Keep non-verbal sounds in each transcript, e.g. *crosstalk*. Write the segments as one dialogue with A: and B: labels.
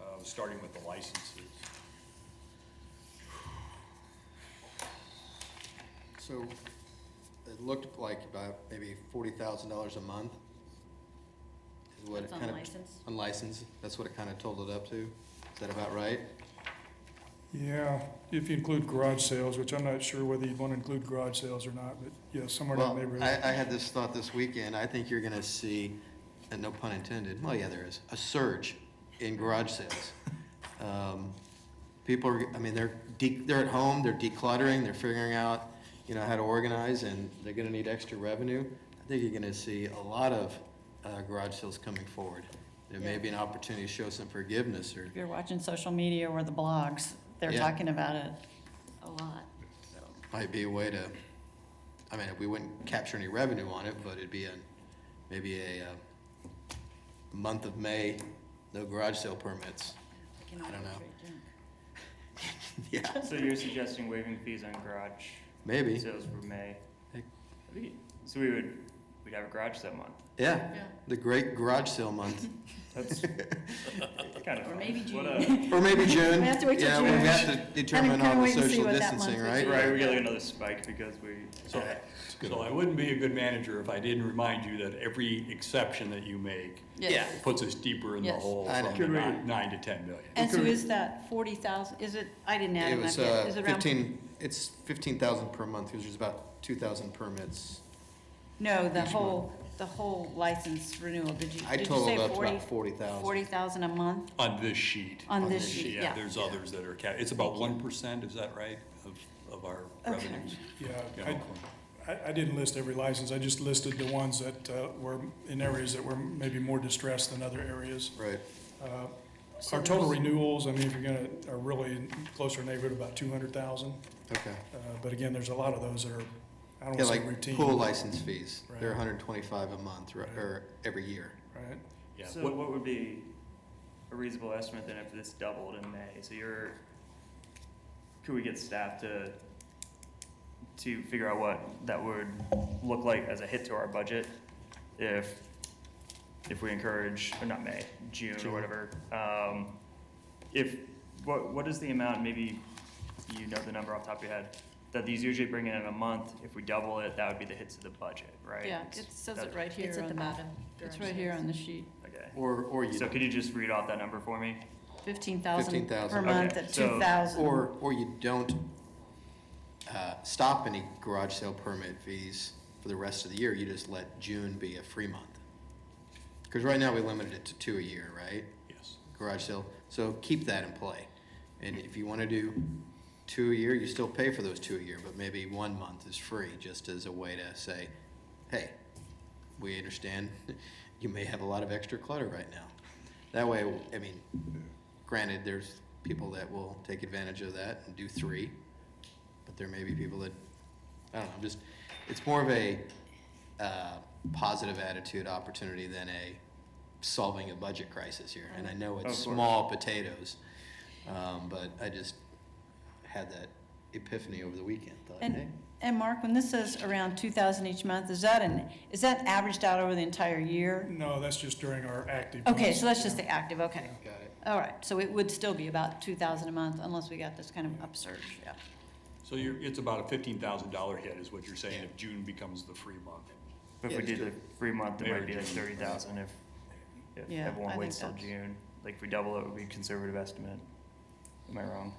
A: uh, starting with the licenses.
B: So it looked like about maybe forty thousand dollars a month. is what it
C: That's
B: kind of-
C: unlicensed?
B: Unlicensed, that's what it kind of totaled up to. Is that about right?
D: Yeah, if you include garage sales, which I'm not sure whether you'd want to include garage sales or not, but yeah, somewhere in that
B: Well, I,
D: neighborhood.
B: I had this thought this weekend. I think you're gonna see, and no pun intended, well, yeah, there is, a surge in garage
D: *laughs*
B: sales. Um, People are, I mean, they're de, they're at home, they're decluttering, they're figuring out, you know, how to organize, and they're gonna need extra revenue. I think you're gonna see a lot of, uh, garage sales coming forward. There may
C: Yeah.
B: be an opportunity to show some forgiveness or,
C: If you're watching social media or the blogs, they're
B: Yeah.
C: talking about it a lot, so.
B: might be a way to, I mean, we wouldn't capture any revenue on it, but it'd be a, maybe a, uh, month of May, no garage sale
C: *laughs*
B: permits.
C: we can
B: I don't
C: all
B: know.
C: drink.
B: Yeah,
E: So you're suggesting waiving fees on garage
B: maybe.
E: sales for May?
B: Hey.
E: I think- So we would, we'd have a garage that month.
B: Yeah, the great garage sale month, *laughs*
E: That's kind of
C: Or
E: fun.
C: maybe
E: What
C: June.
E: a-
B: or maybe June.
C: We have to wait till
B: Yeah, we
C: June.
B: have to determine
C: kinda
B: all the
C: wait and see
B: social
C: what that
B: distancing,
C: month
B: right?
C: would
E: Right, we get like another spike because we,
A: So, so I wouldn't be a good manager if I didn't remind you that every exception that you make
C: Yes.
A: puts us deeper in the
C: Yes.
A: hole
B: I know.
A: from the
B: Could
D: we-
A: nine, nine to ten million.
C: And so is that forty thousand, is it, I didn't add
B: It
C: it up
B: was,
C: yet,
B: uh,
C: is it around?
B: fifteen, it's fifteen thousand per month, because there's about two thousand permits.
C: No, the
B: each
C: whole, the whole license renewal, did you,
B: I
C: did you say
B: totaled up to
C: forty?
B: about forty thousand.
C: Forty thousand a month
A: On this sheet.
C: on this sheet, yeah.
A: There's others that are ca, it's about one percent, is that right, of, of our
C: Okay.
A: revenues?
D: Yeah,
A: Yeah,
D: I, I, I didn't list every license, I just listed the ones that uh, were in areas that were maybe more distressed than other areas.
B: Right,
D: Uh,
C: So
D: Our total
C: there's-
D: renewals, I mean, if you're gonna, are really in closer neighborhood, about two hundred thousand. uh,
B: okay.
D: But again, there's a lot of those that are, I don't
B: Yeah,
D: wanna say
B: like
D: routine.
B: pool license fees, they're
D: Right.
B: hundred and twenty-five a month, or, or every year.
D: Right,
A: Yeah,
E: so
A: what-
E: what would be a reasonable estimate then if this doubled in May? So you're, could we get staff to, to figure out what that would look like as a hit to our budget if, if we encourage, or not May, June or
B: June.
E: whatever? Um, if, what, what is the amount, maybe you know the number off the top of your head, that these usually bring in in a month? If we double it, that would be the hit to the budget, right?
C: Yeah, it says it
E: that-
C: right here
F: It's at the
C: on the,
F: bottom.
C: it's right here on the sheet,
E: Okay.
B: Or, or you,
E: So could you just read off that number for me?
C: fifteen thousand
B: 15,000.
C: per month
E: Okay,
C: at
E: so-
C: two thousand.
B: or, or you don't uh, stop any garage sale permit fees for the rest of the year, you just let June be a free month. Because right now, we limited it to two a year, right?
A: Yes.
B: Garage sale, so keep that in play. And if you want to do two a year, you still pay for those two a year, but maybe one month is free, just as a way to say, hey, we understand *laughs* you may have a lot of extra clutter right now. That way, I mean, granted, there's people that will take advantage of that and do three, but there may be people that, I don't know, just, it's more of a uh, positive attitude opportunity than a solving a budget crisis here. And I know it's
E: Of course.
B: small potatoes, um, but I just had that epiphany over the weekend, thought, hey.
C: And, and Mark, when this says around two thousand each month, is that an, is that averaged out over the entire year?
D: no, that's just during our active.
C: Okay,
D: months.
C: so that's just the active, okay.
B: Got it.
C: All right, so it would still be about two thousand a month unless we got this kind of upsurge, yeah.
A: So you're, it's about a fifteen thousand dollar hit is what you're saying if June becomes the free month.
E: If
B: Yeah,
E: we
B: just
E: did
B: do
E: the
B: it.
E: free month, it
A: May or
E: might be like
A: June.
E: thirty thousand if, if
C: Yeah, I
E: everyone
C: think
E: waits till
C: that's-
E: June. Like if we double it, it would be a conservative estimate. Am I wrong?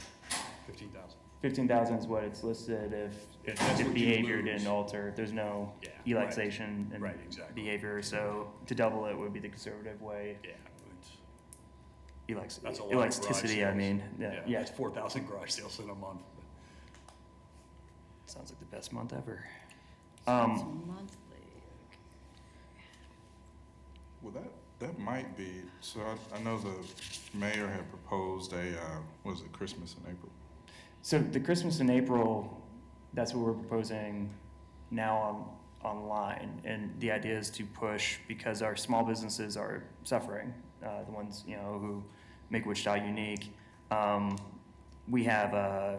A: Fifteen thousand.
E: Fifteen thousand is what it's listed if,
A: Yeah, that's
E: if
A: what you
E: behavior
A: lose.
E: didn't alter, there's no
A: Yeah, right.
E: relaxation in
A: Right, exactly.
E: behavior, so to double it would be the conservative way.
A: Yeah, it's,
E: Elax-
A: that's a lot of garage
E: Elasticity, I
A: sales.
E: mean, yeah, yeah,
A: That's four thousand garage sales in a month.
E: sounds like the best month ever.
C: So
E: Um,
C: it's Monthly,
F: Well, that, that might be, so I, I know the mayor had proposed a, uh, was it Christmas in April?
E: So the Christmas in April, that's what we're proposing now on online, and the idea is to push because our small businesses are suffering. Uh, the ones you know who make Wichita unique. Um, we have uh,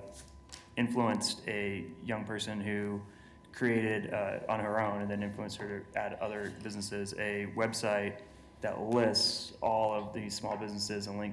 E: influenced a young person who created uh, on her own, and then influenced her to add other businesses a website that lists all of these small businesses and links.